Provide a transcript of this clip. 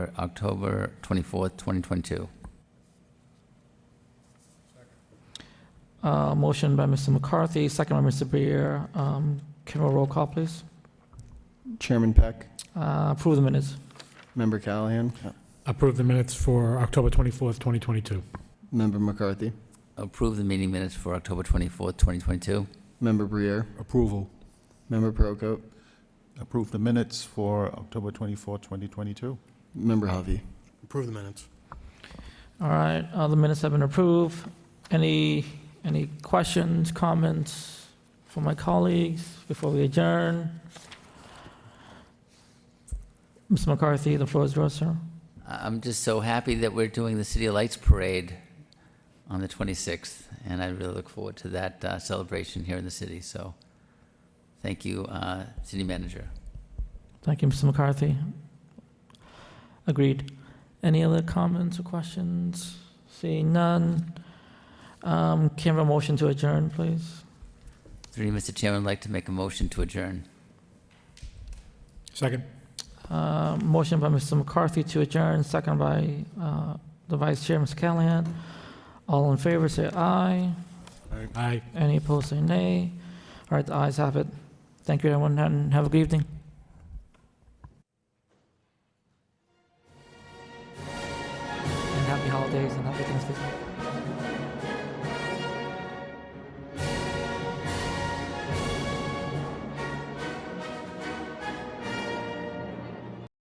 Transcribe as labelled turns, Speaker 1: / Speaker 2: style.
Speaker 1: October 24th, 2022.
Speaker 2: Uh, Motion by Mr. McCarthy, second by Mr. Brier. Um, Can we roll call, please?
Speaker 3: Chairman Peck,
Speaker 2: Uh, Approve the minutes.
Speaker 3: Member Callahan,
Speaker 4: Approve the minutes for October 24th, 2022.
Speaker 3: Member McCarthy,
Speaker 1: Approve the meeting minutes for October 24th, 2022.
Speaker 3: Member Brier,
Speaker 5: Approval.
Speaker 3: Member Prokop,
Speaker 5: Approve the minutes for October 24, 2022.
Speaker 3: Member Hovey.
Speaker 5: Approve the minutes.
Speaker 2: All right, uh, the minutes have been approved. Any, any questions, comments from my colleagues before we adjourn? Mr. McCarthy, the floor is yours, sir.
Speaker 1: I- I'm just so happy that we're doing the City Lights Parade on the 26th, and I really look forward to that uh, celebration here in the city. So, thank you, uh, City Manager.
Speaker 2: Thank you, Mr. McCarthy. Agreed. Any other comments or questions? Seeing none. Um, Can I have a motion to adjourn, please?
Speaker 1: Through you, Mr. Chairman, I'd like to make a motion to adjourn.
Speaker 4: Second.
Speaker 2: Uh, Motion by Mr. McCarthy to adjourn, second by uh, the Vice Chair, Mr. Callahan. All in favor, say aye.
Speaker 4: Aye.
Speaker 2: Any opposed, say nay. All right, the ayes have it. Thank you, everyone, and have a good evening. And happy holidays and happy Thanksgiving.